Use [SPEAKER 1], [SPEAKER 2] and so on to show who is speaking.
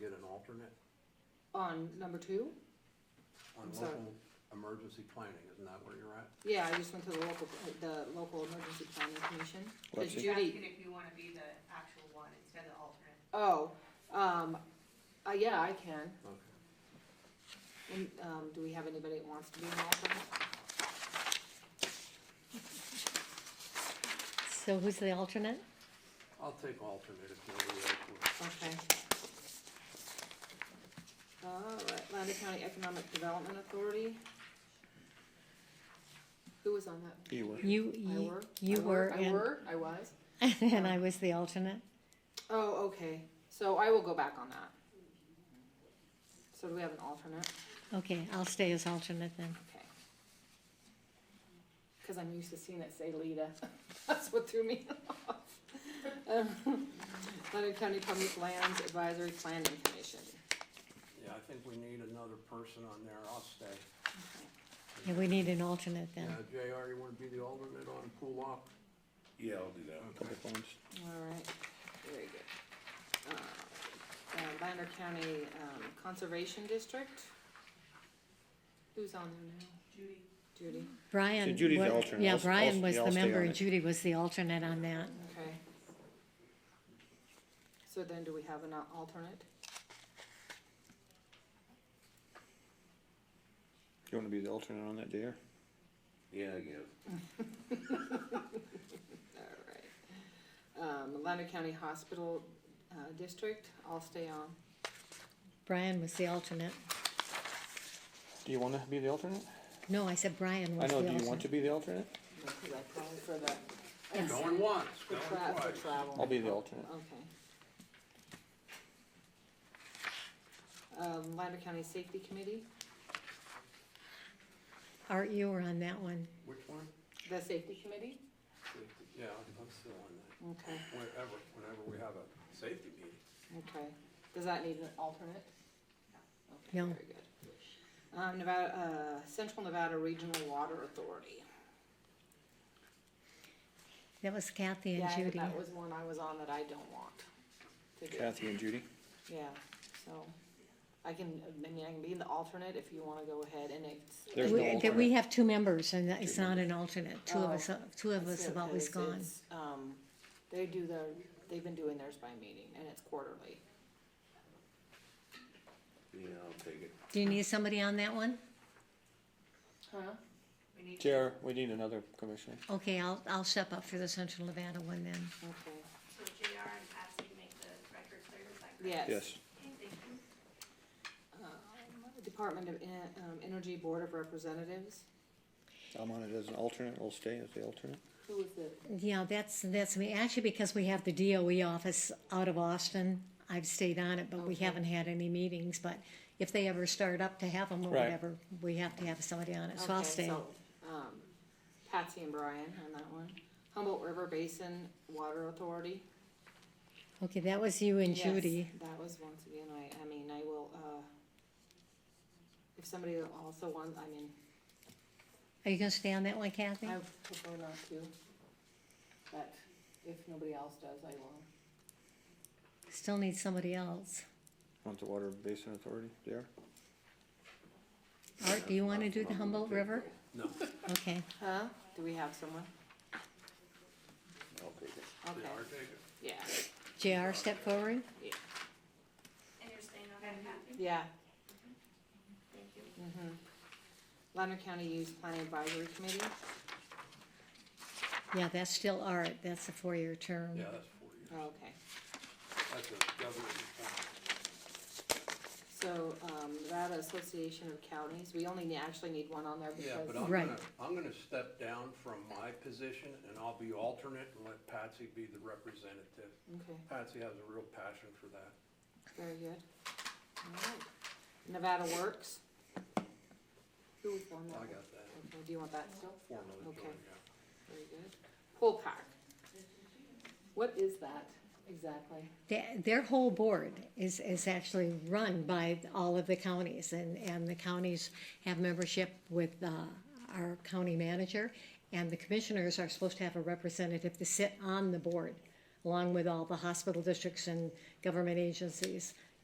[SPEAKER 1] alternate
[SPEAKER 2] On number two?
[SPEAKER 1] on
[SPEAKER 2] I'm sorry.
[SPEAKER 1] local emergency planning, isn't that where you're at?
[SPEAKER 2] Yeah, I just went to the local, the local emergency planning commission, cause
[SPEAKER 3] What's it?
[SPEAKER 2] Judy,
[SPEAKER 4] Asking if you wanna be the actual one instead of the alternate.
[SPEAKER 2] oh, um, uh, yeah, I can.
[SPEAKER 1] Okay.
[SPEAKER 2] And, um, do we have anybody that wants to be an alternate?
[SPEAKER 5] So who's the alternate?
[SPEAKER 1] I'll take alternate if nobody else would.
[SPEAKER 2] Okay. Alright, Lander County Economic Development Authority. Who was on that?
[SPEAKER 3] You were.
[SPEAKER 5] You,
[SPEAKER 2] I
[SPEAKER 5] you,
[SPEAKER 2] were? I
[SPEAKER 5] you were,
[SPEAKER 2] I
[SPEAKER 5] and,
[SPEAKER 2] were, I was?
[SPEAKER 5] and I was the alternate.
[SPEAKER 2] Oh, okay, so I will go back on that. So do we have an alternate?
[SPEAKER 5] Okay, I'll stay as alternate then.
[SPEAKER 2] Okay. Cause I'm used to seeing it say Lita, that's what threw me off. Um, Lander County Public Lands Advisory Planning Commission.
[SPEAKER 1] Yeah, I think we need another person on there, I'll stay.
[SPEAKER 5] Yeah, we need an alternate
[SPEAKER 1] Yeah,
[SPEAKER 5] then.
[SPEAKER 1] JR, you wanna be the alternate on pool op?
[SPEAKER 6] Yeah, I'll do that.
[SPEAKER 1] Okay.
[SPEAKER 3] Public lands.
[SPEAKER 2] Alright, very good. Uh, uh, Lander County, um, Conservation District. Who's on there now? Judy. Judy,
[SPEAKER 5] Brian,
[SPEAKER 3] So Judy's the
[SPEAKER 5] wa-
[SPEAKER 3] alternate. I'll
[SPEAKER 5] yeah,
[SPEAKER 3] s- I'll
[SPEAKER 5] Brian
[SPEAKER 3] s-
[SPEAKER 5] was
[SPEAKER 3] yeah,
[SPEAKER 5] the
[SPEAKER 3] I'll stay
[SPEAKER 5] member
[SPEAKER 3] on
[SPEAKER 5] and
[SPEAKER 3] it.
[SPEAKER 5] Judy was the alternate on that.
[SPEAKER 2] okay. So then do we have an al- alternate?
[SPEAKER 3] You wanna be the alternate on that, JR?
[SPEAKER 6] Yeah, I guess.
[SPEAKER 2] Alright. Um, Lander County Hospital, uh, District, I'll stay on.
[SPEAKER 5] Brian was the alternate.
[SPEAKER 3] Do you wanna be the alternate?
[SPEAKER 5] No, I said Brian
[SPEAKER 3] I
[SPEAKER 5] was the
[SPEAKER 3] know,
[SPEAKER 5] alternate.
[SPEAKER 3] do you want to be the alternate?
[SPEAKER 2] Because I called for the,
[SPEAKER 1] Going once,
[SPEAKER 2] for
[SPEAKER 1] going
[SPEAKER 2] tra-
[SPEAKER 1] twice.
[SPEAKER 2] for travel.
[SPEAKER 3] I'll be the alternate.
[SPEAKER 2] Okay. Um, Lander County Safety Committee,
[SPEAKER 5] Art, you were on that one.
[SPEAKER 1] Which one?
[SPEAKER 2] the safety committee?
[SPEAKER 1] Yeah, I'm still on that,
[SPEAKER 2] Okay,
[SPEAKER 1] whenever, whenever we have a safety meeting.
[SPEAKER 2] okay. Does that need an alternate? Okay,
[SPEAKER 5] No.
[SPEAKER 2] Very good. Um, Nevada, uh, Central Nevada Regional Water Authority.
[SPEAKER 5] That was Kathy and
[SPEAKER 2] Yeah,
[SPEAKER 5] Judy.
[SPEAKER 2] that was one I was on that I don't want to do.
[SPEAKER 3] Kathy and Judy.
[SPEAKER 2] Yeah, so I can, I mean, I can be the alternate if you wanna go ahead and it's.
[SPEAKER 3] There's
[SPEAKER 5] We-
[SPEAKER 3] no
[SPEAKER 5] that We
[SPEAKER 3] alternate.
[SPEAKER 5] have two members and that it's not an alternate. Two of
[SPEAKER 2] Oh.
[SPEAKER 5] us, two of us
[SPEAKER 2] That's
[SPEAKER 5] have
[SPEAKER 2] it,
[SPEAKER 5] always
[SPEAKER 2] 'cause
[SPEAKER 5] gone.
[SPEAKER 2] it's, Um, they do their, they've been doing theirs by meeting and it's quarterly.
[SPEAKER 6] Yeah, I'll take it.
[SPEAKER 5] Do you need somebody on that one?
[SPEAKER 2] Huh?
[SPEAKER 4] We need to,
[SPEAKER 3] JR, we need another commissioner.
[SPEAKER 5] Okay, I'll, I'll step up for the Central Nevada one then.
[SPEAKER 2] Okay,
[SPEAKER 4] so JR and Patsy make the record clear, is that correct?
[SPEAKER 2] yes.
[SPEAKER 3] Yes.
[SPEAKER 4] Okay, Thank you.
[SPEAKER 2] Um, Department of En- um, Energy Board of Representatives,
[SPEAKER 3] I'm on it as an alternate. I'll stay as the alternate.
[SPEAKER 2] who is the,
[SPEAKER 5] Yeah, that's, that's me. Actually, because we have the DOE office out of Austin, I've stayed on it, but we
[SPEAKER 2] Okay.
[SPEAKER 5] haven't had any meetings. But if they ever start up to have them or
[SPEAKER 3] Right.
[SPEAKER 5] whatever, we have to have somebody on it, so I'll
[SPEAKER 2] okay,
[SPEAKER 5] stay.
[SPEAKER 2] so, um, Patsy and Brian on that one. Humboldt River Basin Water Authority.
[SPEAKER 5] Okay, that was you and
[SPEAKER 2] Yes,
[SPEAKER 5] Judy.
[SPEAKER 2] That was once again, I, I mean, I will, uh, if somebody also wants, I mean,
[SPEAKER 5] Are you gonna stay on that one, Kathy?
[SPEAKER 2] I prefer not to. But if nobody else does, I will.
[SPEAKER 5] Still need somebody else.
[SPEAKER 3] Want the water basin authority, JR?
[SPEAKER 5] Art, do you wanna do the
[SPEAKER 1] I'm gonna
[SPEAKER 5] Humboldt
[SPEAKER 1] take
[SPEAKER 5] River?
[SPEAKER 1] it. No,
[SPEAKER 5] Okay,
[SPEAKER 2] Huh? Do we have someone?
[SPEAKER 6] I'll take it.
[SPEAKER 2] Okay,
[SPEAKER 1] yeah, I'll take it.
[SPEAKER 2] yeah,
[SPEAKER 5] JR, step forward.
[SPEAKER 2] yeah,
[SPEAKER 4] And you're staying on that, Kathy?
[SPEAKER 2] yeah.
[SPEAKER 4] Thank you.
[SPEAKER 2] Mhm. Lander County Youth Planning Advisory Committee,
[SPEAKER 5] Yeah, that's still Art, that's a four-year term.
[SPEAKER 1] Yeah, that's four years,
[SPEAKER 2] oh, okay.
[SPEAKER 1] that's a government appointment.
[SPEAKER 2] So, um, Nevada Association of Counties, we only ne- actually need one on there
[SPEAKER 1] Yeah, but
[SPEAKER 2] because,
[SPEAKER 1] I'm
[SPEAKER 5] Right.
[SPEAKER 1] gonna, I'm gonna step down from my position and I'll be alternate and let Patsy be the representative.
[SPEAKER 2] okay,
[SPEAKER 1] Patsy has a real passion for that.
[SPEAKER 2] very good. Alright. Nevada Works. Who was on that?
[SPEAKER 1] I
[SPEAKER 2] one?
[SPEAKER 1] got that
[SPEAKER 2] Okay, do you want that still?
[SPEAKER 1] formally
[SPEAKER 2] Okay.
[SPEAKER 1] joined, yeah.
[SPEAKER 2] Very good. Pool Park. What is that exactly?
[SPEAKER 5] Their, their whole board is, is actually run by all of the counties, and, and the counties have membership with, uh, our county manager, and the commissioners are supposed to have a representative to sit on the board, along with all the hospital districts and government agencies.